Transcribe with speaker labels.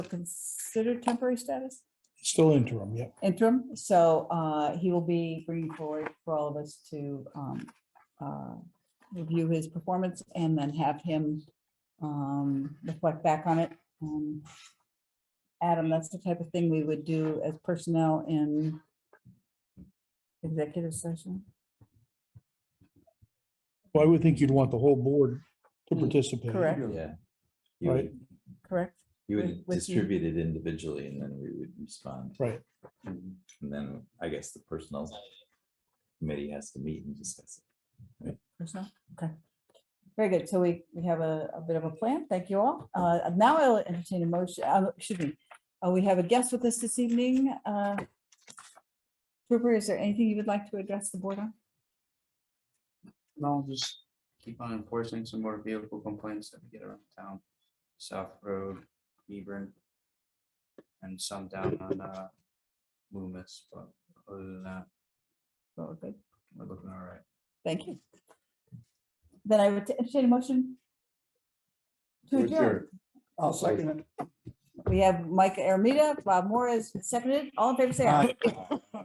Speaker 1: considered temporary status
Speaker 2: Still interim, yep.
Speaker 1: interim. So uh, he will be bringing forward for all of us to um, uh, review his performance and then have him um, reflect back on it. Um, Adam, that's the type of thing we would do as personnel in executive session.
Speaker 2: Well, I would think you'd want the whole board to
Speaker 1: Mm,
Speaker 2: participate.
Speaker 1: correct.
Speaker 3: Yeah. You
Speaker 2: Right.
Speaker 3: would,
Speaker 1: Correct?
Speaker 3: you
Speaker 1: With-
Speaker 3: would
Speaker 1: with you.
Speaker 3: distribute it individually and then we would respond.
Speaker 2: Right.
Speaker 1: Mm-hmm.
Speaker 3: And then I guess the personnel committee has to meet and discuss it.
Speaker 1: Personnel? Okay. Very good. So we, we have a, a bit of a plan. Thank you all. Uh, now I'll entertain a motion, uh, excuse me. Uh, we have a guest with us this evening. Uh, Trooper, is there anything you would like to address the board on?
Speaker 4: No, just keep on enforcing some more vehicle complaints that we get around town, South Road, Hebron. And some down on uh Loomis, but other than that,
Speaker 1: Oh, good.
Speaker 4: we're looking all right.
Speaker 1: Thank you. Then I would entertain a motion. To adjourn.
Speaker 2: I'll second it.
Speaker 1: We have Mike Aramita, Bob Morris, seconded. All in favor, say aye.